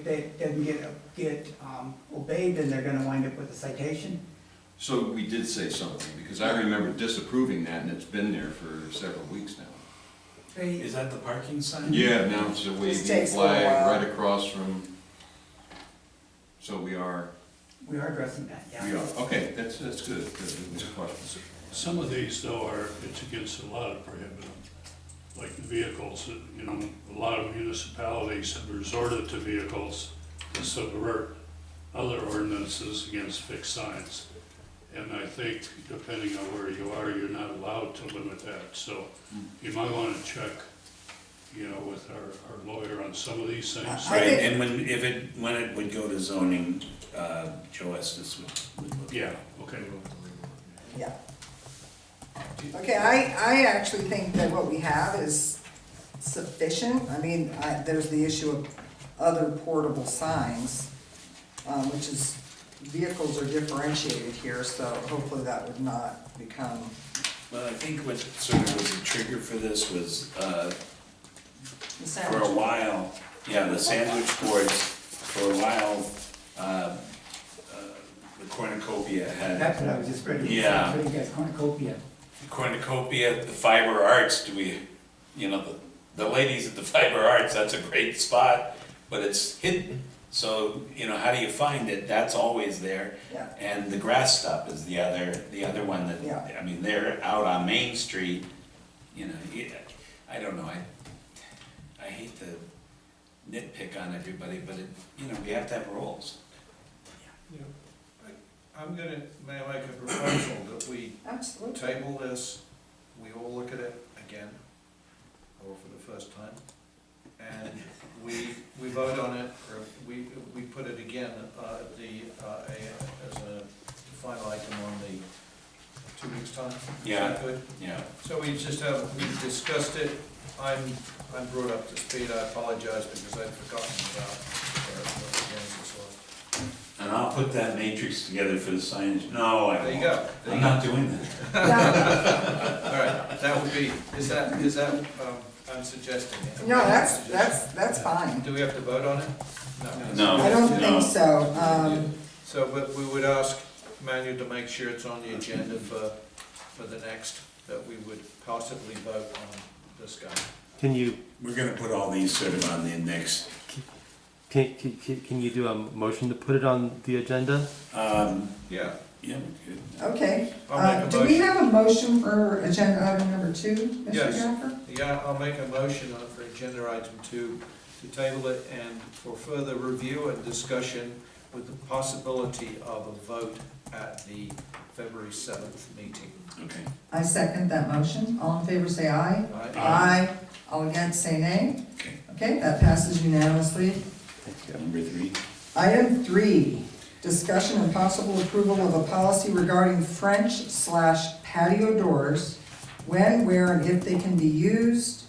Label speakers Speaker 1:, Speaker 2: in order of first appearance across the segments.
Speaker 1: If that doesn't get, get um, obeyed, then they're gonna wind up with a citation.
Speaker 2: So we did say something, because I remember disapproving that, and it's been there for several weeks now.
Speaker 1: They,
Speaker 3: Is that the parking sign?
Speaker 2: Yeah, now it's a
Speaker 4: This
Speaker 2: waving
Speaker 4: takes a little
Speaker 2: flag
Speaker 4: while.
Speaker 2: right across from, so we are,
Speaker 1: we are addressing that,
Speaker 2: we
Speaker 1: yeah.
Speaker 2: are, okay, that's, that's good, that's a question.
Speaker 5: Some of these though are, it's against a lot of prohibitive, like the vehicles, that, you know, a lot of municipalities have resorted to vehicles to subvert other ordinances against fixed signs. And I think depending on where you are, you're not allowed to limit that, so you might wanna check, you know, with our, our lawyer on some of these things.
Speaker 4: I
Speaker 3: Right,
Speaker 4: think-
Speaker 3: and when, if it, when it would go to zoning, uh, Joe Estes would, would look.
Speaker 5: Yeah, okay.
Speaker 4: Yeah. Okay, I, I actually think that what we have is sufficient. I mean, I, there's the issue of other portable signs, um, which is, vehicles are differentiated here, so hopefully that would not become,
Speaker 3: Well, I think what sort of was a trigger for this was, uh,
Speaker 4: the
Speaker 3: for a
Speaker 4: sandwich.
Speaker 3: while, yeah, the sandwich boards, for a while, uh, uh, the cornucopia had,
Speaker 1: That's what I was just ready to say,
Speaker 3: Yeah.
Speaker 1: for you guys, cornucopia.
Speaker 3: the cornucopia, the fiber arts, do we, you know, the, the ladies at the fiber arts, that's a great spot, but it's hidden, so, you know, how do you find it? That's always there.
Speaker 4: Yeah.
Speaker 3: And the grass stop is the other, the other one
Speaker 4: Yeah.
Speaker 3: that, I mean, they're out on Main Street, you know, you- I don't know, I, I hate to nitpick on everybody, but it, you know, we have to have rules.
Speaker 6: Yeah, I- I'm gonna, may I make a proposal that we
Speaker 4: Absolutely.
Speaker 6: table this, we all look at it again, or for the first time, and we, we vote on it, or we, we put it again, uh, at the, uh, a- as a final item on the two weeks' time. Is that
Speaker 3: Yeah.
Speaker 6: good?
Speaker 3: Yeah,
Speaker 6: So we just have, we discussed it, I'm, I'm brought up to speed, I apologize because I'd forgotten about, uh, what the games was.
Speaker 3: and I'll put that matrix together for the signage, no, I won't.
Speaker 6: There you go. There
Speaker 3: I'm
Speaker 6: you go.
Speaker 3: not doing that.
Speaker 4: No,
Speaker 6: All right, that would be, is that, is that, um, I'm suggesting it.
Speaker 4: no, that's, that's, that's fine.
Speaker 6: Do we have to vote on it?
Speaker 3: No.
Speaker 4: I don't
Speaker 3: No.
Speaker 4: think so. Um,
Speaker 6: So, but we would ask Manuel to make sure it's on the agenda for, for the next, that we would possibly vote on this guy.
Speaker 7: Can you,
Speaker 3: We're gonna put all these sort of on the next,
Speaker 7: can, can, can can you do a motion to put it on the agenda?
Speaker 3: um,
Speaker 6: Yeah.
Speaker 3: yeah, we could.
Speaker 4: okay.
Speaker 6: I'll make
Speaker 4: Uh,
Speaker 6: a
Speaker 4: Do we
Speaker 6: motion.
Speaker 4: have a motion for agenda item number two, Mr.
Speaker 6: Yes.
Speaker 4: Gaffer?
Speaker 6: Yeah, I'll make a motion on- for agenda item two, to table it and for further review and discussion with the possibility of a vote at the February seventh meeting.
Speaker 3: Okay.
Speaker 4: I second that motion. All in favor, say aye.
Speaker 6: All right?
Speaker 4: Aye. All against, say nay.
Speaker 3: Okay.
Speaker 4: Okay, that passes unanimously.
Speaker 3: Number three.
Speaker 4: Item three, discussion and possible approval of a policy regarding French slash patio doors, when, where, and if they can be used.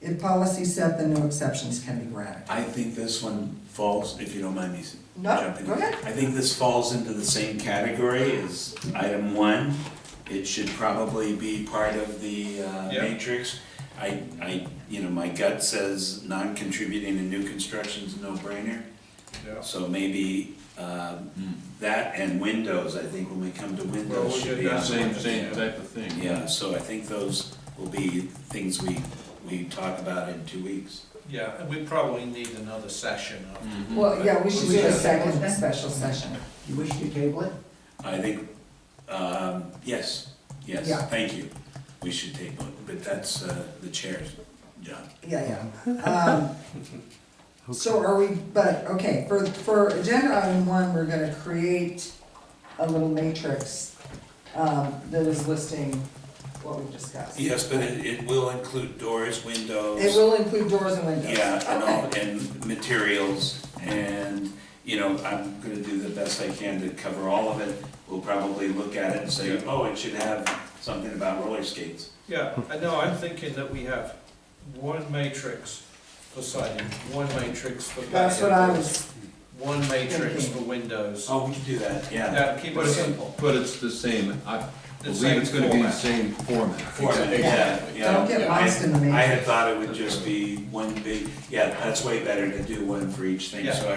Speaker 4: If policy set, then no exceptions can be granted.
Speaker 3: I think this one falls, if you don't mind me s-
Speaker 4: No,
Speaker 3: jumping. in.
Speaker 4: go ahead.
Speaker 3: I think this falls into the same category as item one. It should probably be part of the uh,
Speaker 6: Yeah.
Speaker 3: matrix. I, I, you know, my gut says non-contributing and new construction's a no-brainer.
Speaker 6: Yeah. Hmm.
Speaker 3: So maybe um, that and windows, I think when we come to
Speaker 6: Well,
Speaker 3: windows
Speaker 6: we
Speaker 3: should
Speaker 6: did
Speaker 3: be
Speaker 6: that
Speaker 3: on.
Speaker 2: Same, same type of thing.
Speaker 3: Yeah, so I think those will be things we, we talk about in two weeks.
Speaker 6: Yeah, and we probably need another session after.
Speaker 4: Well, yeah, we should do a
Speaker 6: Yeah.
Speaker 4: second special session.
Speaker 1: You wish to table it?
Speaker 3: I think, um, yes, yes,
Speaker 4: Yeah.
Speaker 3: thank you. We should take one, but that's uh, the chair's job.
Speaker 4: Yeah, yeah. Um, So are we, but, okay, for, for agenda item one, we're gonna create a little matrix um, that is listing what we discussed. It
Speaker 3: Yes, but it, it will include doors, windows.
Speaker 4: will include doors and windows.
Speaker 3: Yeah, and
Speaker 4: Okay.
Speaker 3: all, and materials, and, you know, I'm gonna do the best I can to cover all of it. We'll probably look at it and say, oh, it should have something about roller skates.
Speaker 6: Yeah, I know, I'm thinking that we have one matrix for siding, one matrix for
Speaker 4: That's what I
Speaker 6: patio,
Speaker 4: was,
Speaker 6: one matrix for
Speaker 4: thinking.
Speaker 6: windows.
Speaker 3: Oh, we could do that, yeah.
Speaker 6: Yeah, keep it simple.
Speaker 2: But it's the same, I
Speaker 6: The
Speaker 2: believe it's gonna be the
Speaker 6: same
Speaker 2: same format.
Speaker 3: Format, yeah, yeah.
Speaker 4: don't get lost in the
Speaker 3: I
Speaker 4: matrix.
Speaker 3: had thought it would just be one big, yeah, that's way better to do one for each thing, so
Speaker 6: Yeah.